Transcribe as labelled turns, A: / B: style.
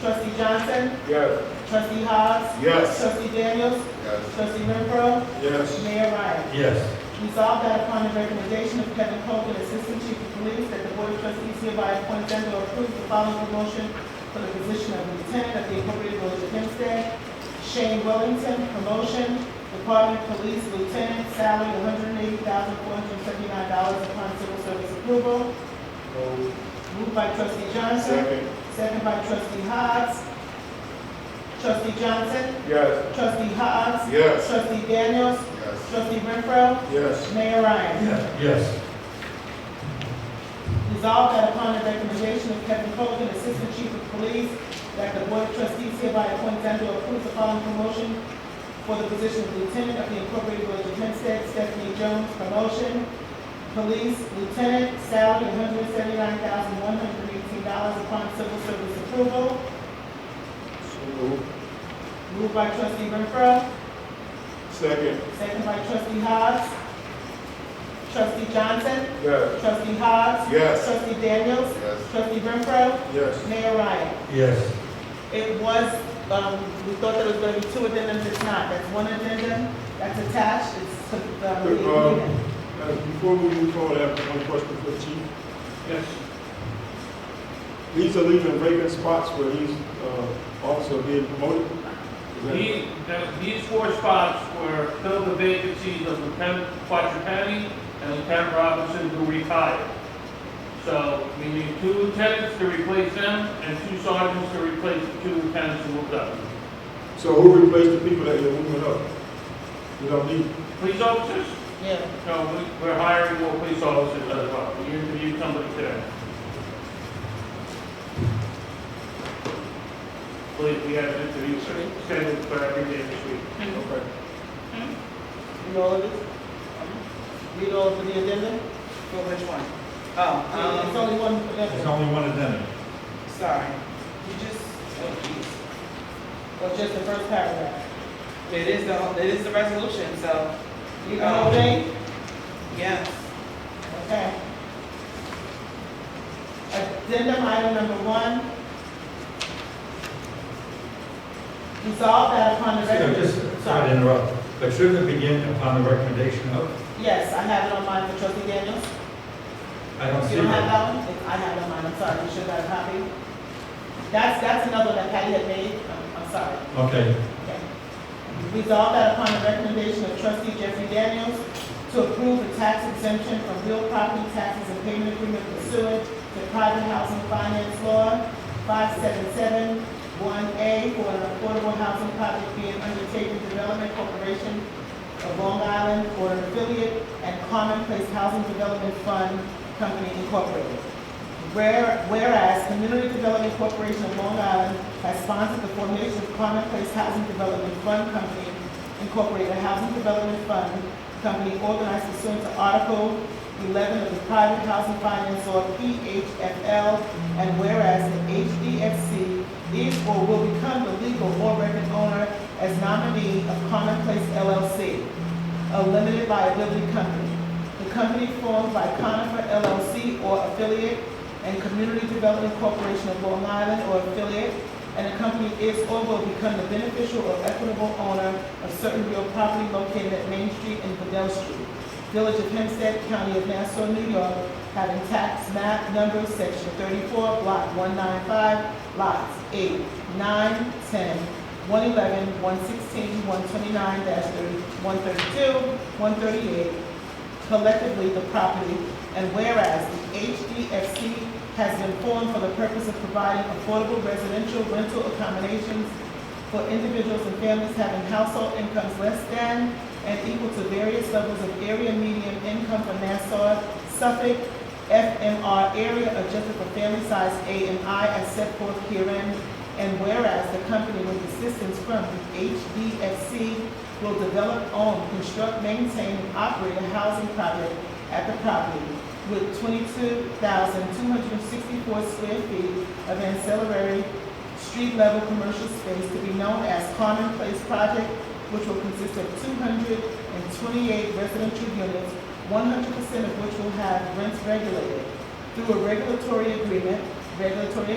A: Trustee Johnson?
B: Yes.
A: Trustee Hogs?
B: Yes.
A: Trustee Daniels?
B: Yes.
A: Trustee Renfro?
B: Yes.
A: Mayor Ryan?
B: Yes.
A: Resolved that upon the recommendation of Kevin Copeland, Assistant Chief of Police, that the Board of Trustees hereby appoints and or approves the following promotion for the position of Lieutenant of the Incorporated Village of Hempstead. Shane Wellington, promotion, Department of Police Lieutenant, salary one hundred eighty thousand four hundred seventy-nine dollars upon civil service approval.
B: Move.
A: Moved by trustee Johnson,
B: Second.
A: second by trustee Hogs. Trustee Johnson,
B: Yes.
A: trustee Hogs,
B: Yes.
A: trustee Daniels,
B: Yes.
A: trustee Renfro,
B: Yes.
A: Mayor Ryan.
B: Yes.
A: Resolved that upon the recommendation of Kevin Colvin, Assistant Chief of Police, that the Board of Trustees hereby appoints and or approves the following promotion for the position of Lieutenant of the Incorporated Village of Hempstead, Stephanie Jones, promotion, Police Lieutenant, salary one hundred seventy-nine thousand one hundred eighteen dollars upon civil service approval,
B: So move.
A: moved by trustee Renfro,
B: Second.
A: second by trustee Hobbs. Trustee Johnson,
B: Yes.
A: trustee Hobbs.
B: Yes.
A: Trustee Daniels,
B: Yes.
A: trustee Renfro,
B: Yes.
A: Mayor Ryan.
B: Yes.
A: It was, um, we thought there was gonna be two addendums, it's not, that's one addendum, that's attached, it's, to the
B: Good,
A: the
B: um,
A: agreement.
B: Before we move forward, I have one question for the chief. Yes. These are leaving vacant spots where these uh, officers are being promoted? Is that-
C: These, that- uh, these four spots were filled the vacancies of Lieutenant Quattrapani and Lieutenant Robinson who retired. So we need two lieutenants to replace them and two sergeants to replace the two lieutenants who moved up.
B: So who replaced the people that you're moving up? You don't need,
C: Police officers,
A: Yeah,
C: no, we- we're hiring more police officers as well. We interviewed somebody today. Believe we have an interview scheduled for every day this week.
B: okay.
A: read all of it? Read all of the addendum?
D: For which one?
A: It's
D: Oh,
A: only one
E: There's
A: addendum,
E: only one addendum.
D: um, sorry. You just, oh jeez.
A: or just the first paragraph?
D: It is the, it is the resolution, so,
A: You the whole thing?
D: yes.
A: Okay. Addendum item number one. Resolve that upon the
E: So just,
A: recommendation.
E: sorry to interrupt, but shouldn't it begin upon the recommendation of,
A: Yes, I have it on mine for trustee Daniels.
E: I don't see
A: You don't have
E: that.
A: that one? If I have that one, I'm sorry, you should have a copy. That's, that's another one that Patty had made, I'm, I'm sorry.
E: Okay,
A: Okay. Resolve that upon the recommendation of trustee Jeffrey Daniels to approve a tax exemption from real property taxes and payment agreement pursuant to private housing finance law five seven seven one A for an affordable housing project being undertaken Development Corporation of Long Island for an affiliate and Commonplace Housing Development Fund Company Incorporated. Where- Whereas Community Development Corporation of Long Island has sponsored the formation of Commonplace Housing Development Fund Company Incorporated, a housing development fund company organized pursuant to Article 11 of the Private Housing Finance Law, PHFL, and whereas the HDFC is or will become the legal or record owner as nominee of Commonplace LLC, a limited liability company. The company formed by Conifer LLC or affiliate and Community Development Corporation of Long Island or affiliate, and the company is or will become the beneficial or equitable owner of certain real property located at Main Street and Bedell Street, Village of Hempstead, County of Nassau, New York, having tax map number section thirty-four, block one nine five, lots 8, 9, 10, 111, 116, 129, 132, 138, collectively the property, and whereas the HDFC has been formed for the purpose of providing affordable residential rental accommodations for individuals and families having household incomes less than and equal to various levels of area median income for Nassau, Suffolk, FMR area adjusted for family size A and I as set forth herein. And whereas the company with assistance from the HDFC will develop, own, construct, maintain, and operate a housing project at the property with twenty-two thousand two hundred and sixty-four square feet of ancillary street-level commercial space to be known as Common Place Project, which will consist of two hundred and twenty-eight residential units, one hundred percent of which will have rents regulated through a regulatory agreement, regulatory